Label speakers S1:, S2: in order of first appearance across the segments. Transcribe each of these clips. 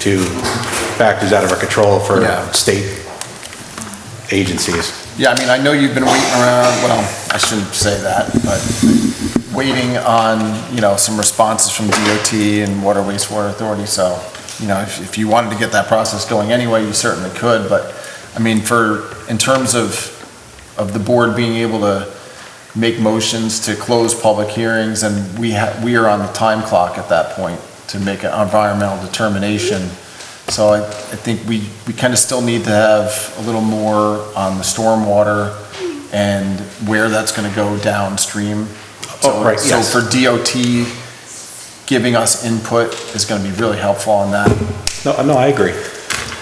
S1: to factors out of our control for
S2: Yeah.
S1: state agencies.
S2: Yeah, I mean, I know you've been waiting around, well, I shouldn't say that, but waiting on, you know, some responses from DOT and Water Wastewater Authority, so, you know, if, if you wanted to get that process going anyway, you certainly could, but, I mean, for, in terms of, of the board being able to make motions to close public hearings, and we ha, we are on the time clock at that point to make an environmental determination. So I, I think we, we kind of still need to have a little more on the stormwater and where that's going to go downstream.
S1: Oh, right,
S2: So-
S1: yes.
S2: So for DOT, giving us input is going to be really helpful on that,
S1: No, no, I agree.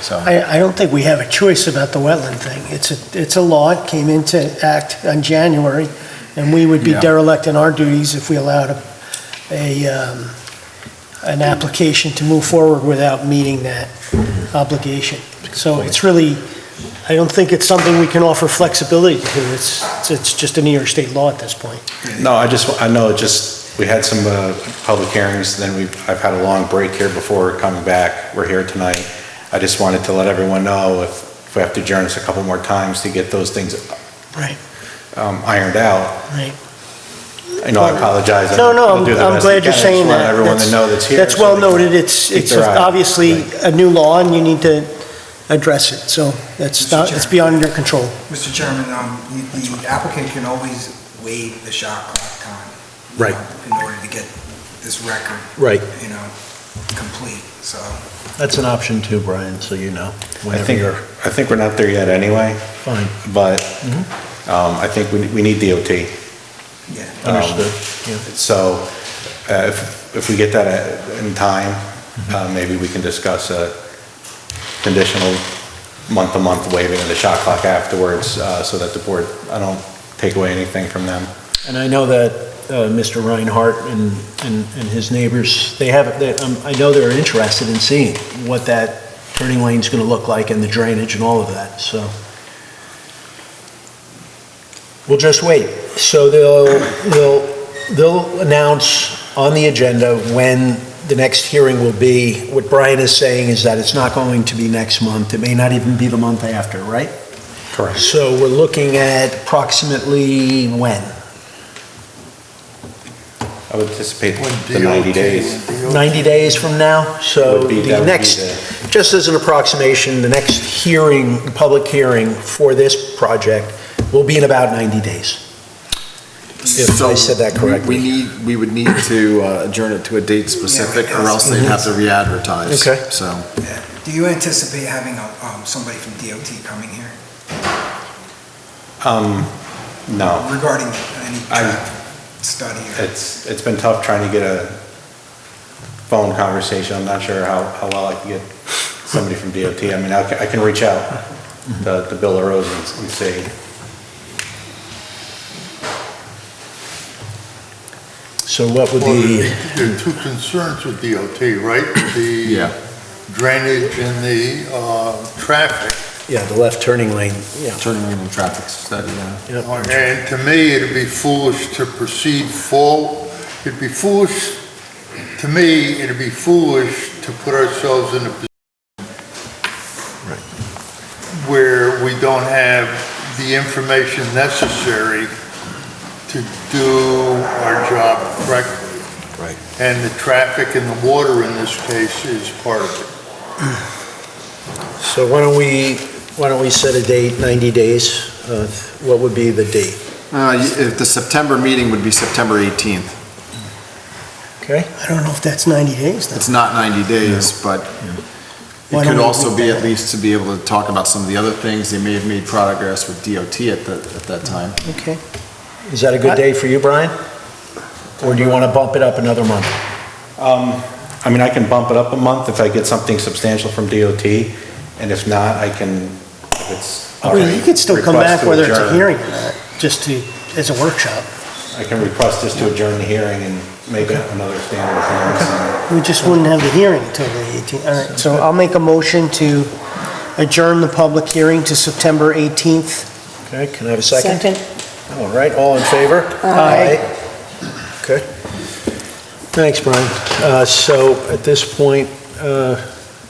S2: so.
S3: I, I don't think we have a choice about the wetland thing. It's a, it's a law, it came into act on January, and we would be
S2: Yeah.
S3: derelict in our duties if we allowed a, a, um, an application to move forward without meeting that obligation. So it's really, I don't think it's something we can offer flexibility to. It's, it's just a New York State law at this point.
S1: No, I just, I know, it just, we had some uh, public hearings, then we, I've had a long break here before coming back. We're here tonight. I just wanted to let everyone know if if we have to adjourn this a couple more times to get those things
S3: Right,
S1: um, ironed out.
S3: right.
S1: You know, I apologize.
S3: No, no,
S1: We'll do
S3: I'm
S1: the
S3: I'm
S1: best we
S3: glad you're
S1: can.
S3: saying that.
S1: Just want everyone to know that's here.
S3: That's
S1: so
S3: well
S1: they can
S3: noted, it's,
S1: keep
S3: it's
S1: their eye-
S3: obviously
S1: Right.
S3: a new law, and you need to address it, so that's
S4: Mr.
S3: not, it's
S4: Chair.
S3: beyond your control.
S4: Mr. Chairman, um, the- the applicant can always waive the shot clock time. you
S5: Right.
S4: know, In order to get this record,
S5: Right,
S4: you know, complete, so.
S5: that's an option too, Brian, so you know,
S1: I
S5: whenever
S1: think,
S5: you're
S1: I think we're not there yet anyway,
S5: fine,
S1: but um, I think we we need DOT.
S4: Yeah.
S1: um,
S5: understood, yeah.
S1: So uh, if, if we get that uh, in time, uh, maybe we can discuss a conditional month-to-month waiving of the shot clock afterwards, uh, so that the board, I don't take away anything from them.
S5: And I know that uh, Mr. Reinhardt and, and and his neighbors, they have, they- um, I know they're interested in seeing what that turning lane's gonna look like and the drainage and all of that, so. We'll just wait. So they'll, they'll, they'll announce on the agenda when the next hearing will be. What Brian is saying is that it's not going to be next month, it may not even be the month after, right?
S1: Correct.
S5: So we're looking at approximately when?
S1: I would anticipate the 90 days.
S5: 90 days from now, so
S1: Would be- that
S5: the
S1: would be
S5: next, just as an approximation, the next hearing, public hearing for this project will be in about 90 days. If
S2: So,
S5: I said that
S2: we-
S5: correctly.
S2: We need, we would need to uh, adjourn it to a date specific, or else they'd have to re-advertise.
S5: Okay.
S2: So,
S4: yeah. Do you anticipate having a, um, somebody from DOT coming here
S1: Um, No,
S4: regarding any
S1: I-
S4: traffic study? or-
S1: it's, it's been tough trying to get a phone conversation. I'm not sure how, how well I can get somebody from DOT. I mean, I can, I can reach out to to Bill LaRose and and see.
S5: So what would
S6: Well,
S5: be,
S6: There are two concerns with DOT, right?
S2: Yeah.
S6: The drainage and the uh, traffic.
S5: yeah, the left turning lane, yeah.
S2: turning in and traffic study, yeah.
S5: yeah.
S6: And to me, it'd be foolish to proceed forward. it'd be foolish, to me, it'd be foolish to put ourselves in a position where we don't have the information necessary to do our job correctly.
S5: Right.
S6: And the traffic and the water in this case is part of it.
S5: So why don't we, why don't we set a date, 90 days? Uh, What would be the date?
S2: Uh, y- if The September meeting would be September 18th.
S5: Okay?
S3: I don't know if that's 90 days, though.
S2: It's not 90 days, but
S3: Why
S2: it
S3: don't
S2: could
S3: we
S2: also
S3: do
S2: be
S3: that?
S2: at least to be able to talk about some of the other things. They may have made progress with DOT at the at that time.
S3: Okay.
S5: Is that a good day for you, Brian? Or do you want to bump it up another month?
S1: Um, I mean, I can bump it up a month if I get something substantial from DOT, and if not, I can, if it's. all
S3: I mean, Oh, you
S1: right,
S3: could still come
S1: request
S3: back
S1: to
S3: whether it's a
S1: adjourn.
S3: hearing or not, just to, as a workshop.
S1: I can request this to adjourn the hearing and make it another standard hearing.
S3: We just wouldn't have the hearing until the 18th. All right, so I'll make a motion to adjourn the public hearing to September 18th.
S5: Okay, can I have a second? All right, all in favor?
S3: Aye.
S5: Okay. Thanks, Brian. Uh, So at this point, uh,